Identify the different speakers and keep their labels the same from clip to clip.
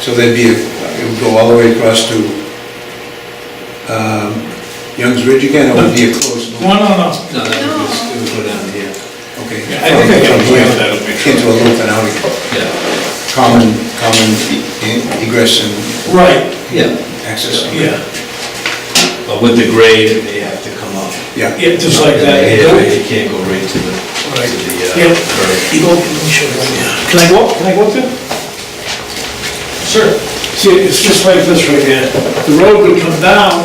Speaker 1: So there'd be, a- it would go all the way across to um, Youngs Ridge again, or would it be a close?
Speaker 2: No, no, no.
Speaker 1: No, that would just, it would go down here, okay.
Speaker 2: Yeah, I think I
Speaker 1: From
Speaker 2: can
Speaker 1: here
Speaker 2: handle that, I'll make sure.
Speaker 1: Into a loop and out again.
Speaker 3: Yeah,
Speaker 1: Common, common e- egress and
Speaker 2: Right,
Speaker 3: yeah,
Speaker 1: access.
Speaker 2: yeah,
Speaker 3: but with the grade, it may have to come up.
Speaker 1: Yeah.
Speaker 2: yeah, just like
Speaker 3: Yeah,
Speaker 2: that.
Speaker 3: You can't go right to the, to the,
Speaker 2: Yeah.
Speaker 3: uh, curb.
Speaker 2: You go, let me show you one, yeah. Can I go up, can I go up there? Sir, see, it's just like this right here, the road would come down,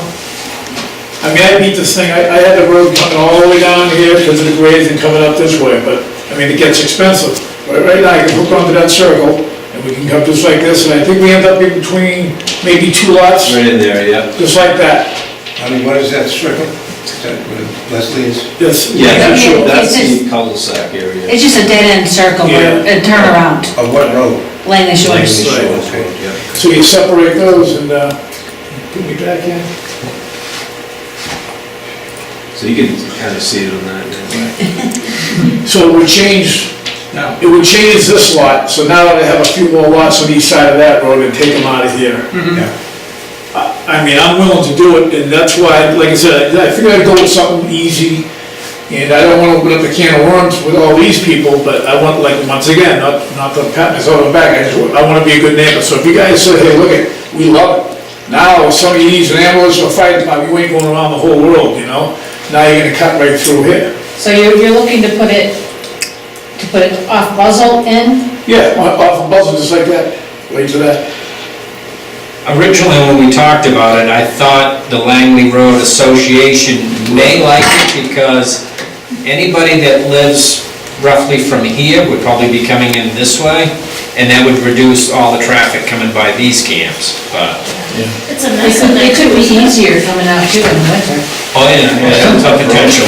Speaker 2: I mean, I beat this thing, I, I had the road coming all the way down here because of the grades and coming up this way, but, I mean, it gets expensive. But right now, I can hook onto that circle, and we can come just like this, and I think we end up in between maybe two lots,
Speaker 3: Right in there, yeah.
Speaker 2: just like that.
Speaker 1: I mean, what is that circle? Is that where Leslie's?
Speaker 2: Yes.
Speaker 3: Yeah,
Speaker 4: Yeah, yeah,
Speaker 3: that's
Speaker 4: it's
Speaker 3: the
Speaker 4: just-
Speaker 3: cul-de-sac area.
Speaker 4: It's just a dead-end circle,
Speaker 2: Yeah.
Speaker 4: a turnaround,
Speaker 1: Of what road?
Speaker 4: Langley
Speaker 3: Like
Speaker 4: Shores.
Speaker 3: the
Speaker 2: Right.
Speaker 3: Shores Road, yeah.
Speaker 2: So you separate those and, uh, put me back in.
Speaker 3: So you can kind of see it on that. yeah.
Speaker 2: So it would change, it would change this lot, so now I have a few more lots on each side of that road and take them out of here.
Speaker 1: Yeah.
Speaker 2: I I mean, I'm willing to do it, and that's why, like I said, I figured I'd go with something easy, and I don't wanna open up a can of worms with all these people, but I want, like, once again, not, not to pat myself on the back, I just, wa- I wanna be a good neighbor, so if you guys say, hey, look, it, we love it. Now, if somebody needs an ambulance or fire department, you ain't going around the whole world, you know? Now you're gonna cut right through here.
Speaker 4: So you're, you're looking to put it, to put it off Buzzell in?
Speaker 2: Yeah, off off of Buzzell, just like that, right to that.
Speaker 5: Originally, when we talked about it, I thought the Langley Road Association may like it because anybody that lives roughly from here would probably be coming in this way, and that would reduce all the traffic coming by these camps, but,
Speaker 6: It's a
Speaker 4: It
Speaker 6: nice
Speaker 4: could,
Speaker 6: one.
Speaker 4: it could be easier coming out too in the winter.
Speaker 5: oh yeah, yeah, it's a potential.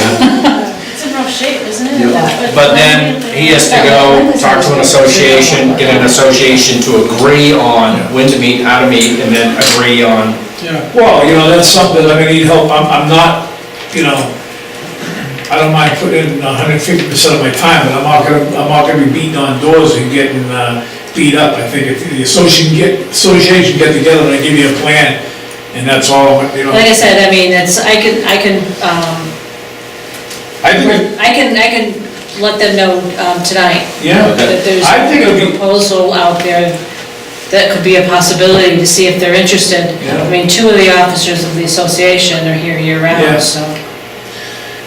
Speaker 6: It's in rough shape, isn't it?
Speaker 5: But then he has to go talk to an association, get an association to agree on when to meet, how to meet, and then agree on
Speaker 2: Well, you know, that's something, I mean, need help, I'm, I'm not, you know, I don't mind putting in hundred fifty percent of my time, but I'm not gonna, I'm not gonna be beating on doors and getting, uh, beat up. I think if the association get, association get together and give you a plan, and that's all, you know.
Speaker 4: Like I said, I mean, it's, I can, I can, um,
Speaker 2: I think,
Speaker 4: I can, I can let them know um, tonight
Speaker 2: yeah,
Speaker 4: that there's
Speaker 2: I think it'll
Speaker 4: a
Speaker 2: be,
Speaker 4: proposal out there that could be a possibility to see if they're interested. I mean, two of the officers of the association are here
Speaker 2: Yeah.
Speaker 4: year-round, so.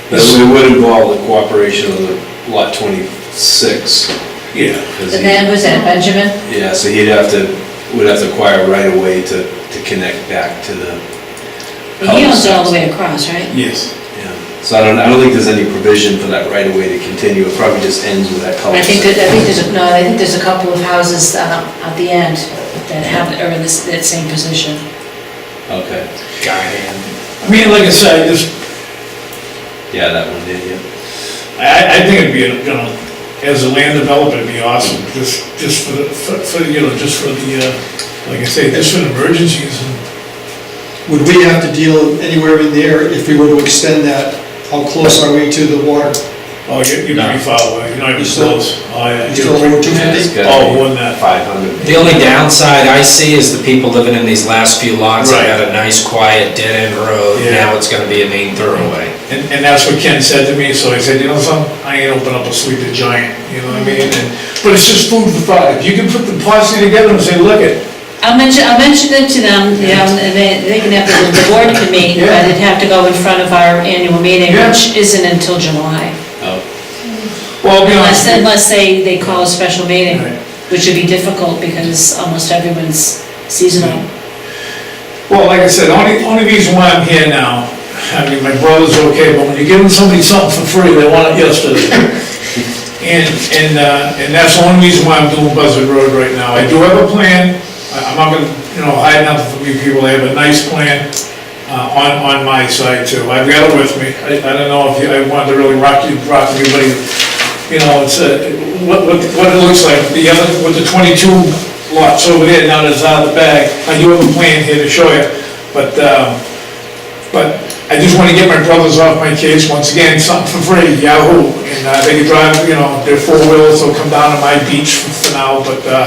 Speaker 3: But it would involve the cooperation of the lot twenty-six.
Speaker 2: yeah,
Speaker 3: 'cause
Speaker 4: And
Speaker 3: he-
Speaker 4: then, was that Benjamin?
Speaker 3: Yeah, so he'd have to, would have to acquire right away to, to connect back to the,
Speaker 4: He owns it all the way across, right?
Speaker 2: yes.
Speaker 3: yeah. So I don't, I don't think there's any provision for that right away to continue, it probably just ends with that
Speaker 4: I
Speaker 3: cul-de-sac.
Speaker 4: think that, I think there's, a- no, I think there's a couple of houses uh, at the end that have, are in this, that same position.
Speaker 3: Okay,
Speaker 5: guy hand.
Speaker 2: I mean, like I said, I just,
Speaker 3: yeah, that one did, yeah.
Speaker 2: I, I think it'd be, you know, as a land developer, it'd be awesome, just, just for, the- for, for, you know, just for the, uh, like I say, just for the emergencies and,
Speaker 7: Would we have to deal anywhere in there if we were to extend that? How close are we to the water?
Speaker 2: oh, you're, you're pretty far away, you're not even
Speaker 7: You still-
Speaker 2: close. Oh, yeah.
Speaker 7: You still over two
Speaker 3: It's
Speaker 7: fifty?
Speaker 3: gotta
Speaker 2: Oh,
Speaker 3: be
Speaker 2: one that-
Speaker 3: Five hundred.
Speaker 5: The only downside I see is the people living in these last few lots that had a nice, quiet, dead-end road,
Speaker 2: Yeah.
Speaker 5: now it's gonna be a main thoroughway.
Speaker 2: And, and that's what Ken said to me, so I said, you know something, I ain't open up a sleep to giant, you know what I mean? And, but it's just food for thought, if you can put the posse together and say, look it,
Speaker 4: I'll mention, I'll mention it to them, you know, and they, they can have, the the board can meet, but it'd have to go in front of our annual meeting, which isn't until July.
Speaker 3: Oh,
Speaker 2: well, I'll be honest.
Speaker 4: Unless,
Speaker 2: with you.
Speaker 4: unless they, they call a special meeting,
Speaker 2: Right.
Speaker 4: which would be difficult because almost everyone's seasonal.
Speaker 2: Well, like I said, only, only reason why I'm here now, I mean, my brother's okay, but when you're giving somebody something for free, they want it yesterday. And, and, uh, and that's the only reason why I'm doing Buzzard Road right now. I do have a plan, I- I'm not gonna, you know, hide nothing from you people, I have a nice plan, uh, on, on my side too. I've got it with me, I, I don't know if you, I wanted to really rock you, rock everybody, you know, it's, uh, what, what, what it looks like, the other, with the twenty-two lots over there, now that's out of the bag, I do have a plan here to show you, but, um, but I just wanna get my brothers off my kids, once again, something for free, yahoo, and, uh, they can drive, you know, their four wheels, they'll come down to my beach for now, but, uh,